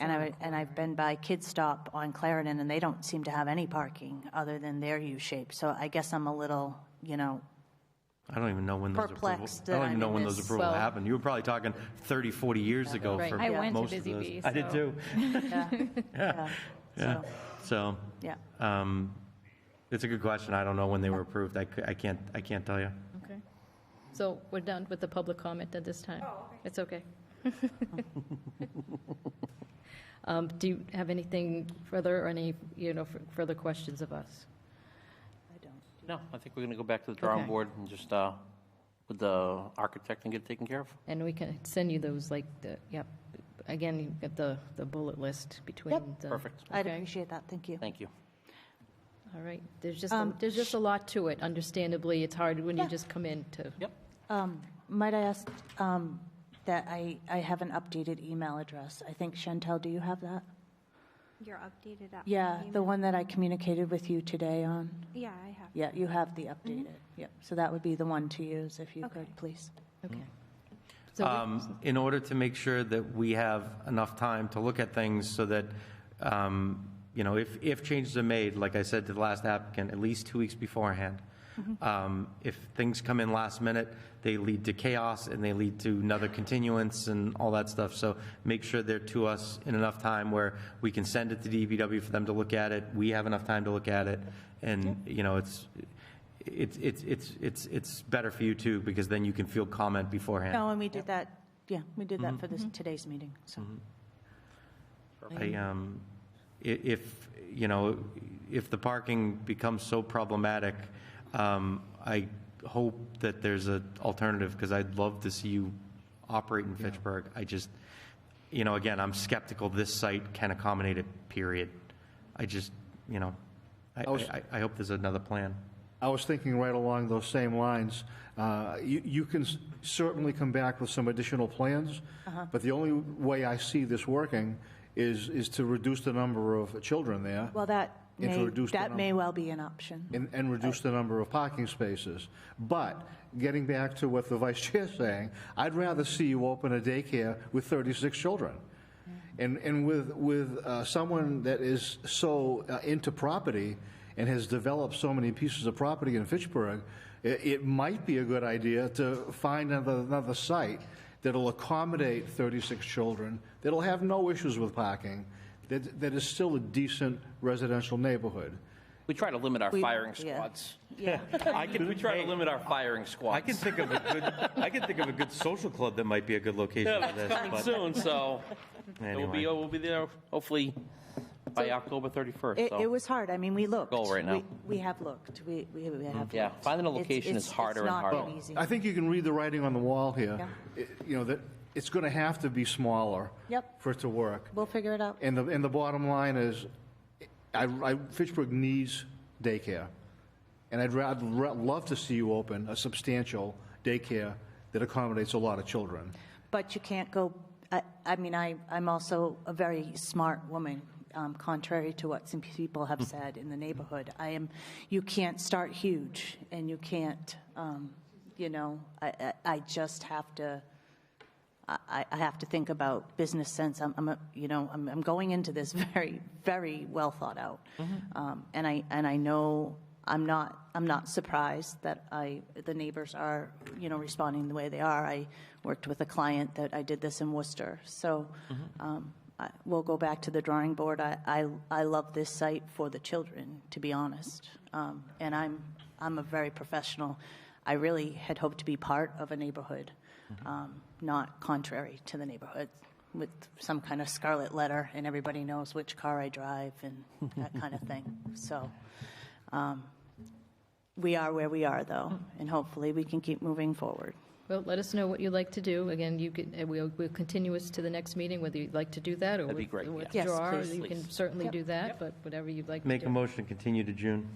it, and I've been by Kid Stop on Clarendon, and they don't seem to have any parking other than their U-shape. So I guess I'm a little, you know, I don't even know when those approvals, Perplexed I that don't I'm even know in when those this- approvals Well- happened. You were probably talking 30, 40 years ago Right. for I went to most of Busy those. Bee, I did so- too. yeah, Yeah, yeah. So, yeah. um, it's a good question. I don't know when they were approved. I c- I can't, I can't tell you. Okay. So we're done with the public comment at this time. It's okay. Um, Do you have anything further or any, you know, f- further questions of us? No, I think we're going to go back to the drawing Okay. board and just, uh, with the architect and get it taken care of. And we can send you those, like, the, yep. Again, you've got the, the bullet list between the. Perfect. I'd Okay. appreciate that, thank you. Thank you. All right. There's just, a- there's just a lot to it. Understandably, it's hard when you just come in to. Yep. Um, Might I ask um, that I, I have an updated email address? I think Chantel, do you have that? Your updated app. Yeah, the email. one that I communicated with you today on? Yeah, I have. Yeah, you have the updated, yep. So that would be the one to use if you Okay. could, please. Okay. So we- um, in order to make sure that we have enough time to look at things so that, um, you know, if, if changes are made, like I said to the last applicant, at least two weeks beforehand. Mm-hmm. Um, If things come in last minute, they lead to chaos and they lead to another continuance and all that stuff. So make sure they're to us in enough time where we can send it to DPW for them to look at it. We have enough time to look at it. And, you know, it's, it's, it's, it's, it's, it's better for you too, because then you can field comment beforehand. No, and we did that, Mm-hmm. yeah, we did that for this, today's meeting, so. I, um, i- if, you know, if the parking becomes so problematic, um, I hope that there's an alternative, because I'd love to see you operate in Fitchburg. I just, you know, again, I'm skeptical this site can accommodate it, period. I just, you know, I, I was- I, I hope there's another plan. I was thinking right along those same lines. Uh, You you can s- certainly come back with some additional plans, but the only way I see this working is, is to reduce the number of children there Well, that may, Introduce the that may number. well be an option. and, and reduce the number of parking spaces. But getting back to what the vice chair's saying, I'd rather see you open a daycare with 36 children. And, and with, with uh, someone that is so uh, into property and has developed so many pieces of property in Fitchburg, it, it might be a good idea to find another, another site that'll accommodate 36 children, that'll have no issues with parking, that, that is still a decent residential neighborhood. We try to limit our We- firing yeah. squads. Yeah, I can, we try to limit our firing squads. I can think of a good, I can think of a good social club that might be a good location for this, Coming but soon, so it will be, anyway. we'll be there hopefully by October 31st. it, so- it was hard, I mean, we looked. Goal right now. Mm-hmm. We- We have looked, we, we we have. Yeah, looked. finding a It's- location it's- is harder and harder. It's not Well, been easy. I think you can read the writing on the wall here. Yeah. It- You know, that it's going to have to be smaller. Yep. For it to work. We'll figure it out. And the, and the bottom line is, I, I, Fitchburg needs daycare. And I'd rather, love to see you open a substantial daycare that accommodates a lot of children. But you can't go, I, I mean, I, I'm also a very smart woman, um, contrary to what some people have Mm-hmm. said in the neighborhood. I am, you can't start huge, and you can't, um, you know, I, I, I just have to, I- I, I have to think about business sense. I'm, I'm a, you know, I'm, I'm going into this very, very well thought out, um, and I and I know I'm not I'm not surprised that I the neighbors are you know responding the way they are. I worked with a client that I did this in Worcester, so. Um, I, we'll go back to the drawing board. I, I, I love this site for the children, to be honest. Um, and I'm, I'm a very professional. I really had hoped to be part of a neighborhood um, not contrary to the neighborhood with some kind of scarlet letter and everybody knows which car I drive and that kind of thing. So um, we are where we are though, and hopefully we can keep moving forward. Well, let us know what you'd like to do. Again, you can, and we'll, we'll continue us to the next meeting, whether you'd like to do that or That'd be great, yeah. Yes, withdraw. please. You can certainly do that, but whatever you'd like to Make a do. motion, continue to June.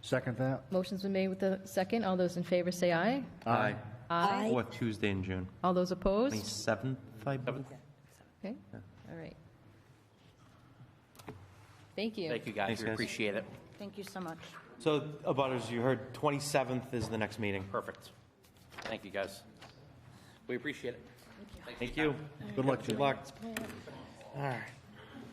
Second that? Motion's been made with the second. All those in favor say aye. Aye. Aye. Fourth Tuesday in June. All those opposed? 27th, I believe. Okay, all right. Thank you. Thank you, guys. Thanks, We guys. appreciate it. Thank you so much. So, abutters, you heard 27th is the next meeting. Perfect. Thank you, guys. We appreciate it. Thanks for your Thank you. Good luck to you. Good luck. All right.